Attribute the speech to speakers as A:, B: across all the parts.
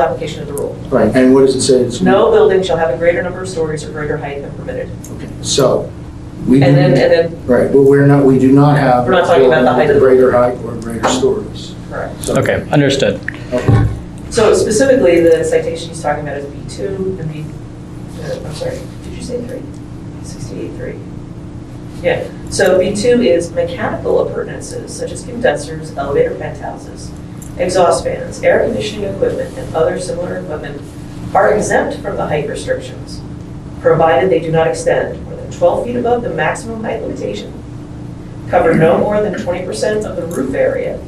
A: application of the rule.
B: Right, and what does it say? It's-
A: No building shall have a greater number of stories or greater height than permitted.
B: Okay, So, we,
A: And then, and
B: do-
A: then,
B: right, but we're not, we do not have.
A: We're not talking about the height of the-
B: Greater height or greater stories.
A: correct.
B: So-
C: Okay, understood.
B: Okay.
A: So specifically, the citation he's talking about is B2 and B, uh, I'm sorry, did you say 3? 68.3. Yeah, so B2 is mechanical appurtenances such as condensers, elevator penthouses, exhaust fans, air conditioning equipment, and other similar equipment are exempt from the height restrictions, provided they do not extend more than 12 feet above the maximum height limitation, cover no more than 20% of the roof area,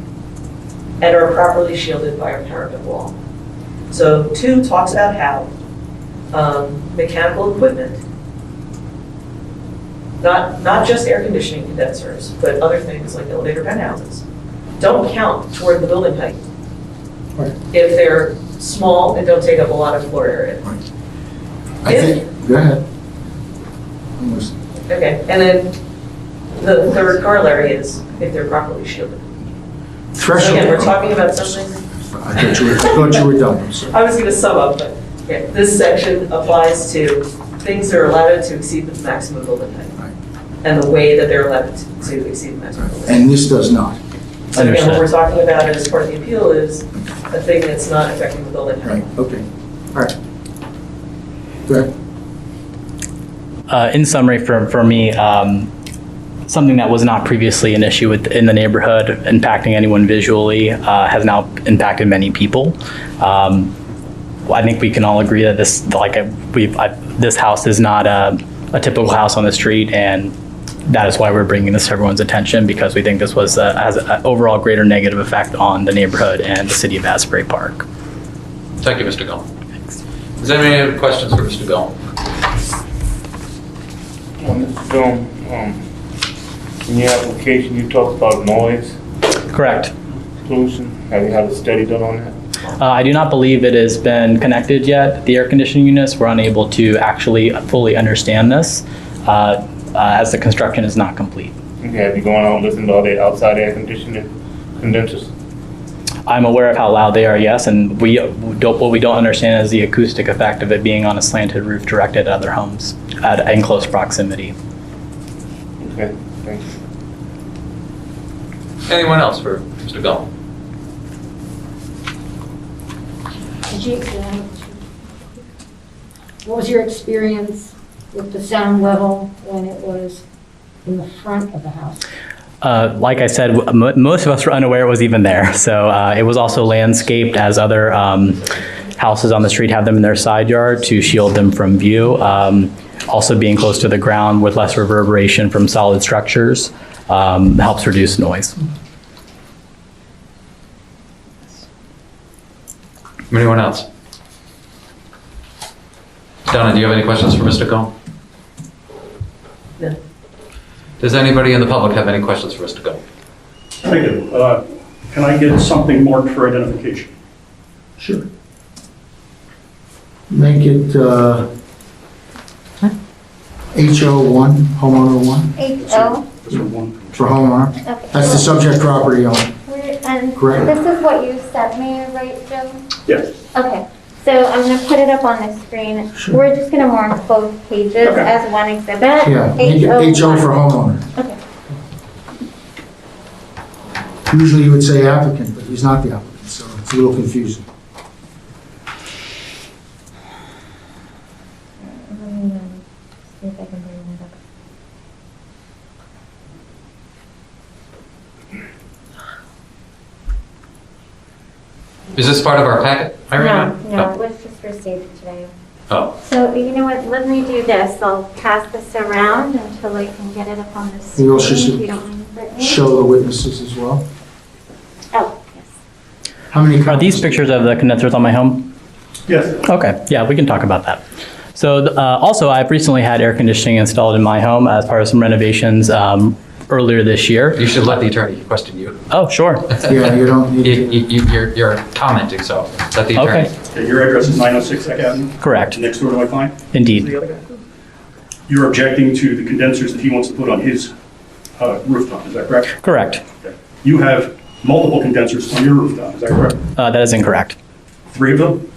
A: and are properly shielded by a parapet wall. So two talks about how um, mechanical equipment, not, not just air conditioning condensers, but other things like elevator penthouses, don't count toward the building height
B: Right.
A: if they're small and don't take up a lot of floor area.
B: I think, go ahead. Almost.
A: Okay, and then the third corollary is if they're properly shielded. So
B: Threshold.
A: Again, we're talking about something
B: I thought you were, I thought you were done, I'm sorry.
A: I was going to sum up, but yeah, this section applies to things that are allowed to exceed the maximum building height.
B: Right.
A: And the way that they're allowed to exceed the maximum building height.
B: And this does not,
A: So again, what
C: Understood.
A: we're talking about as part of the appeal is a thing that's not affecting the building height.
B: right, okay, all right. Go ahead.
C: Uh, in summary, for, for me, um, something that was not previously an issue with, in the neighborhood, impacting anyone visually, uh, has now impacted many people. Um, well, I think we can all agree that this, like, I- we've, I, this house is not a, a typical house on the street, and that is why we're bringing this to everyone's attention, because we think this was, uh, has an overall greater negative effect on the neighborhood and the city of Asbury Park.
D: Thank you, Mr. Gall. Does anybody have questions for Mr. Gall?
E: On this film, um, in your application, you talked about noise
C: Correct.
E: pollution. Have you had a study done on that?
C: Uh, I do not believe it has been connected yet. The air conditioning units were unable to actually fully understand this uh, uh, as the construction is not complete.
E: Okay, have you gone out and listened to all the outside air conditioning condensers?
C: I'm aware of how loud they are, yes, and we don't, what we don't understand is the acoustic effect of it being on a slanted roof directed at other homes at, in close proximity.
E: Okay, thank you.
D: Anyone else for Mr. Gall?
F: Did you, um, what was your experience with the sound level when it was in the front of the house?
C: Uh, like I said, w- mo- most of us were unaware it was even there. So uh, it was also landscaped as other um, houses on the street have them in their side yard to shield them from view. Um, also, being close to the ground with less reverberation from solid structures um, helps reduce noise.
D: Anyone else? Donna, do you have any questions for Mr. Gall?
A: No.
D: Does anybody in the public have any questions for Mr. Gall?
G: I do. Uh, Can I get something marked for identification?
B: Sure. Make it uh, HO1, homeowner one,
H: Eight L,
G: Just for one.
B: for homeowner.
H: okay.
B: That's the subject property owner.
H: We're- And
B: Correct.
H: this is what you sent me, right, Joe?
G: Yes.
H: Okay, so I'm gonna put it up on the screen.
B: Sure.
H: We're just gonna mark both pages
G: Okay.
H: as one exhibit.
B: Yeah, make it HO for homeowner.
H: Okay.
B: Usually you would say applicant, but he's not the applicant, so it's a little confusing.
H: Let me, um, See if I can bring that up.
D: Is this part of our packet? I remember-
H: No,
G: Oh.
H: no, it was just received today.
D: Oh,
H: So you know what, let me do this. I'll pass this around until I can get it up on the screen.
B: You also
H: if
B: should
H: you don't mind, Brittany.
B: Show the witnesses as well.
H: Oh, yes.
B: How many?
C: Are these
B: copies?
C: pictures of the condensers on my home?
G: Yes.
C: Okay, yeah, we can talk about that. So uh, also, I've recently had air conditioning installed in my home as part of some renovations um, earlier this year.
D: Oh. you should let the attorney question you.
C: Oh, sure.
B: Yeah, you don't need
D: You,
B: to.
D: you- you, you're, you're commenting, so let the attorney.
C: Okay,
G: Okay, your address is 906 Second Avenue,
C: correct,
G: next door to my client.
C: indeed.
G: You're objecting to the condensers that he wants to put on his uh, rooftop, is that correct?
C: Correct.
G: You have multiple condensers on your rooftop, is that correct?
C: Uh, That is incorrect.
G: Three of them?